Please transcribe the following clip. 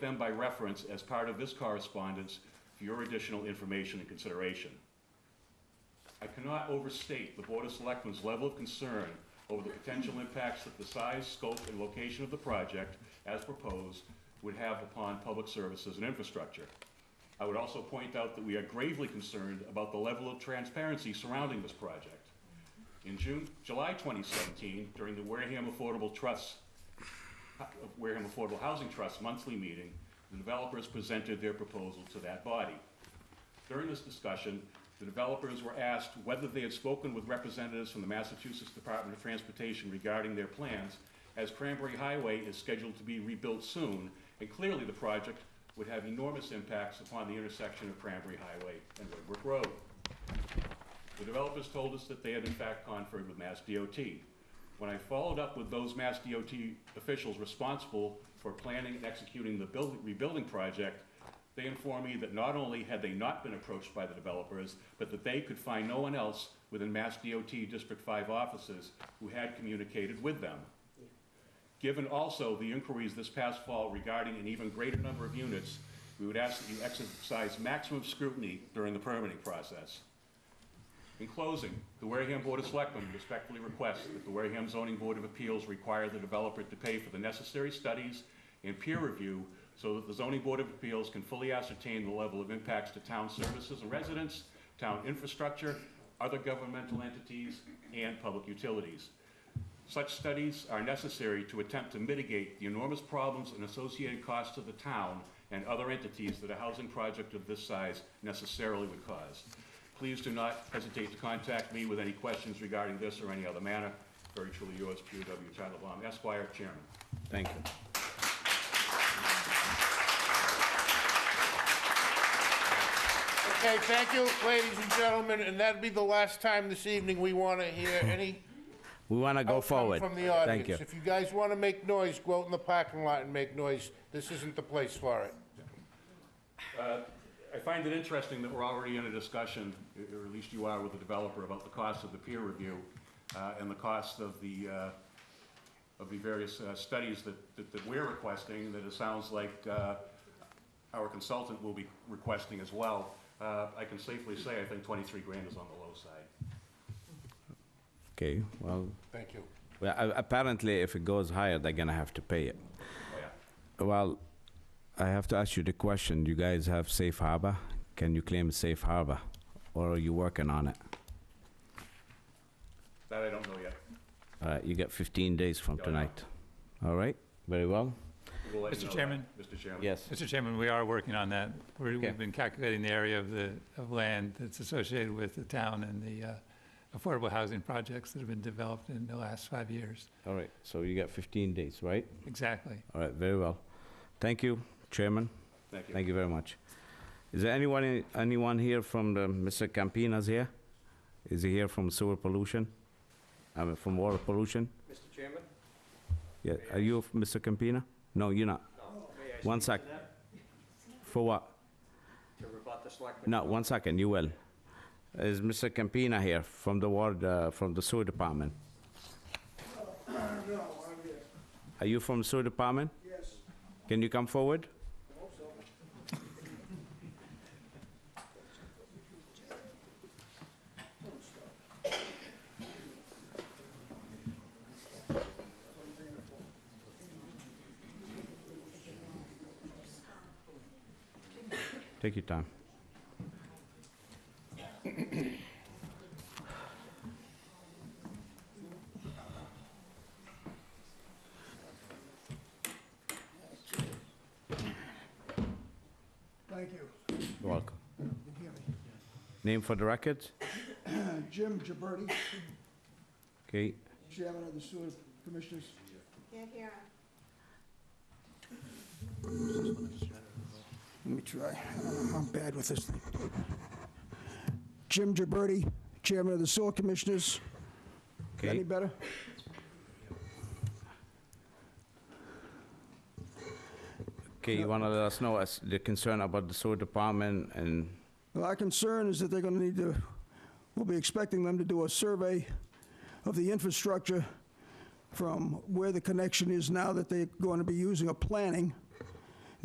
them by reference as part of this correspondence for your additional information and consideration. I cannot overstate the Board of Selectmen's level of concern over the potential impacts that the size, scope, and location of the project, as proposed, would have upon public services and infrastructure. I would also point out that we are gravely concerned about the level of transparency surrounding this project. In June, July 2017, during the Wareham Affordable Trust of Wareham Affordable Housing Trust monthly meeting, the developers presented their proposal to that body. During this discussion, the developers were asked whether they had spoken with representatives from the Massachusetts Department of Transportation regarding their plans, as Cranberry Highway is scheduled to be rebuilt soon, and clearly the project would have enormous impacts upon the intersection of Cranberry Highway and Woodward Road. The developers told us that they had in fact conferred with Mass DOT. When I followed up with those Mass DOT officials responsible for planning and executing the building, rebuilding project, they informed me that not only had they not been approached by the developers, but that they could find no one else within Mass DOT District Five offices who had communicated with them. Given also the inquiries this past fall regarding an even greater number of units, we would ask that you exercise maximum scrutiny during the permitting process. In closing, the Wareham Board of Selectmen respectfully requests that the Wareham Zoning Board of Appeals require the developer to pay for the necessary studies and peer review so that the Zoning Board of Appeals can fully ascertain the level of impacts to town services and residents, town infrastructure, other governmental entities, and public utilities. Such studies are necessary to attempt to mitigate the enormous problems and associated costs to the town and other entities that a housing project of this size necessarily would cause. Please do not hesitate to contact me with any questions regarding this or any other matter. Very truly yours, Peter W. Titlebaum, Esquire, Chairman. Thank you. Okay, thank you, ladies and gentlemen, and that'd be the last time this evening we want to hear any We want to go outcome forward. from the audience. Thank you. If you guys want to make noise, go out in the parking lot and make noise. This isn't the place for it. I find it interesting that we're already in a discussion, or at least you are with the developer, about the cost of the peer review uh, and the cost of the, uh, of the various uh, studies that, that- that we're requesting, that it sounds like uh, our consultant will be requesting as well. Uh, I can safely say, I think 23 grand is on the low side. Okay, well, Thank you. well, a- apparently if it goes higher, they're gonna have to pay it. Oh, yeah. Well, I have to ask you the question, you guys have safe harbor? Can you claim safe harbor? Or are you working on it? That I don't know yet. All right, you got 15 days from Yeah, I know. tonight. All right, very well. We'll let you Mr. know that, Chairman? Mr. Chairman? Yes. Mr. Chairman, we are working on that. We're- Okay. We've been calculating the area of the, of land that's associated with the town and the uh, affordable housing projects that have been developed in the last five years. All right, so you got 15 days, right? Exactly. All right, very well. Thank you, Chairman. Thank you. Thank you very much. Is there anyone, anyone here from the, Mr. Campina's here? Is he here from sewer pollution? I mean, from water pollution? Mr. Chairman? Yeah, are you f- Mr. Campina? No, you're not. No, may I One speak sec. to that? For what? To rebut the selectman? No, one second, you will. Is Mr. Campina here from the ward, uh, from the sewer department? Are you from sewer department? Yes. Can you come forward? Take your time. Thank you. You're welcome. You hear me? Name for the record? Uh, Jim Gibberti, Okay, Chairman of the Sewer Commissioners. Can't hear him. Let me try. I'm bad with this thing. Jim Gibberti, Chairman of the Sewer Commissioners. Any okay. better? Okay, you want to let us know as the concern about the sewer department and, Well, Our concern is that they're going to need to, we'll be expecting them to do a survey of the infrastructure from where the connection is now that they're going to be using a planning